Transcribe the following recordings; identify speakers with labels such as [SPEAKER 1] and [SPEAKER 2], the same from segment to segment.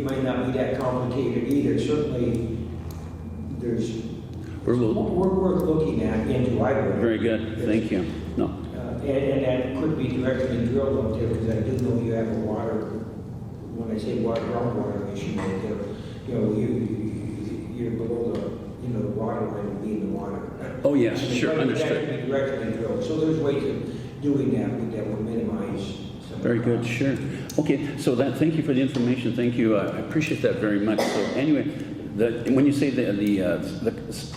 [SPEAKER 1] It may not be that complicated either. Certainly, there's,
[SPEAKER 2] We're
[SPEAKER 1] we're
[SPEAKER 2] mo-
[SPEAKER 1] worth looking at into, I would.
[SPEAKER 2] Very good, thank you. No,
[SPEAKER 1] Uh, And, and that could be directly drilled up there, because I do know you have a water, when I say water, groundwater issue, right there. you know, you, you- you're below the, you know, the water line and be in the water.
[SPEAKER 2] oh yes, sure,
[SPEAKER 1] That-
[SPEAKER 2] understood.
[SPEAKER 1] That could be directly drilled, so there's ways of doing that, but that will minimize some.
[SPEAKER 2] Very good, sure. Okay, so that, thank you for the information, thank you, Uh, I appreciate that very much. So anyway, the, when you say the, the, uh, the,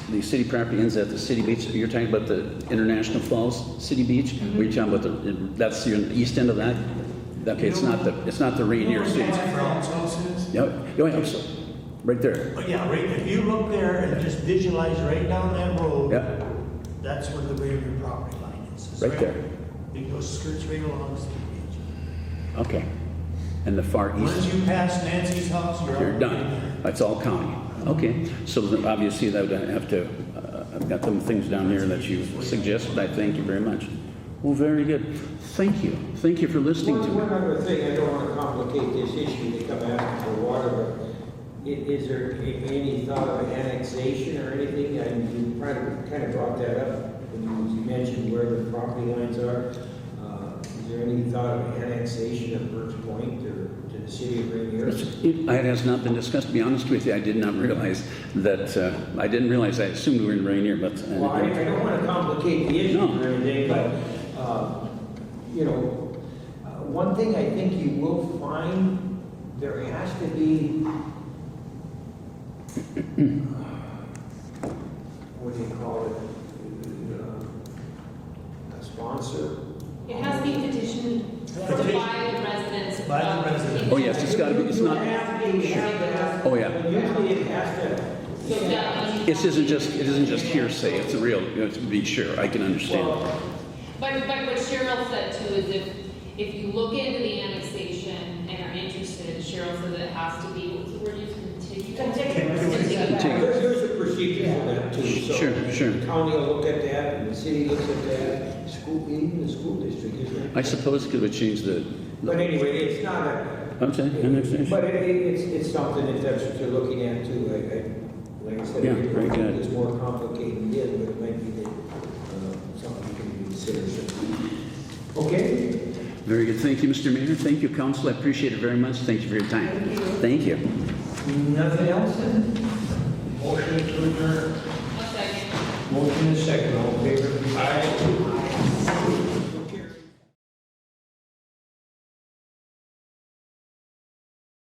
[SPEAKER 2] the city property ends at the city beach, you're talking about the International Falls City Beach? We're talking about the, that's the east end of that? Okay, it's not the, it's not the Rainier City.
[SPEAKER 3] Nancy Brown's house is?
[SPEAKER 2] Yeah, yeah, I'm so- right there,
[SPEAKER 3] But yeah, right, if you look there and just visualize right down that road.
[SPEAKER 2] yeah,
[SPEAKER 3] That's where the Rainier property line is. It's
[SPEAKER 2] Right there.
[SPEAKER 3] It goes skirts right along the city beach.
[SPEAKER 2] okay. And the far east.
[SPEAKER 3] Once you pass Nancy's house, you're.
[SPEAKER 2] You're
[SPEAKER 3] out.
[SPEAKER 2] done. That's all county. Okay, so then obviously that would have to, uh, I've got some things down here that you suggested. I thank you very much. Well, very good. Thank you. Thank you for listening
[SPEAKER 1] One,
[SPEAKER 2] to
[SPEAKER 1] one
[SPEAKER 2] me.
[SPEAKER 1] other thing, I don't want to complicate this issue to come after the water, but i- is there a- any thought of annexation or anything? I mean, you probably kind of brought that up when you mentioned where the property lines are. Uh, Is there any thought of annexation of Birch Point or to the city of Rainier?
[SPEAKER 2] It it has not been discussed, to be honest with you. I did not realize that, uh, I didn't realize, I assumed we were in Rainier, but. uh,
[SPEAKER 1] Well, I, I don't want to complicate the issue or anything, but, uh, you know, uh, one thing I think you will find, there has to be, uh, what do you call it? Uh, A sponsor?
[SPEAKER 4] It has to be petitioned for by the residents.
[SPEAKER 3] By the
[SPEAKER 4] of
[SPEAKER 3] residents.
[SPEAKER 2] Oh, yes, it's gotta be, it's
[SPEAKER 1] You
[SPEAKER 2] not,
[SPEAKER 1] have to, you have to have-
[SPEAKER 2] oh, yeah.
[SPEAKER 1] Usually it has to.
[SPEAKER 4] So that means-
[SPEAKER 2] This isn't just, it isn't just hearsay. It's a real, you know, to be sure, I can understand.
[SPEAKER 1] Well,
[SPEAKER 4] But, but what Cheryl said too is if, if you look into the annexation and are interested, Cheryl said that it has to be, what's the word used, contiguous?
[SPEAKER 2] Contiguous.
[SPEAKER 1] There- There's a procedure for that too, so.
[SPEAKER 2] Sure, sure.
[SPEAKER 1] the County will look at that, and the city looks at that, school, even the school district, isn't
[SPEAKER 2] I
[SPEAKER 1] it?
[SPEAKER 2] suppose it would change the,
[SPEAKER 1] But anyway, it's not a,
[SPEAKER 2] I'm sorry, annexation.
[SPEAKER 1] but it, it- it's, it's something that that's what you're looking at too, I, I, like I said.
[SPEAKER 2] Yeah,
[SPEAKER 1] it-
[SPEAKER 2] very good.
[SPEAKER 1] It's more complicated than it, but it might be that, uh, something can be considered. Okay?
[SPEAKER 2] Very good. Thank you, Mr. Mayor. Thank you, council. I appreciate it very much. Thank you for your time. Thank you.
[SPEAKER 1] Nothing else then? Motion to adjourn.
[SPEAKER 4] One second.
[SPEAKER 1] Motion is second, all in favor? Aye.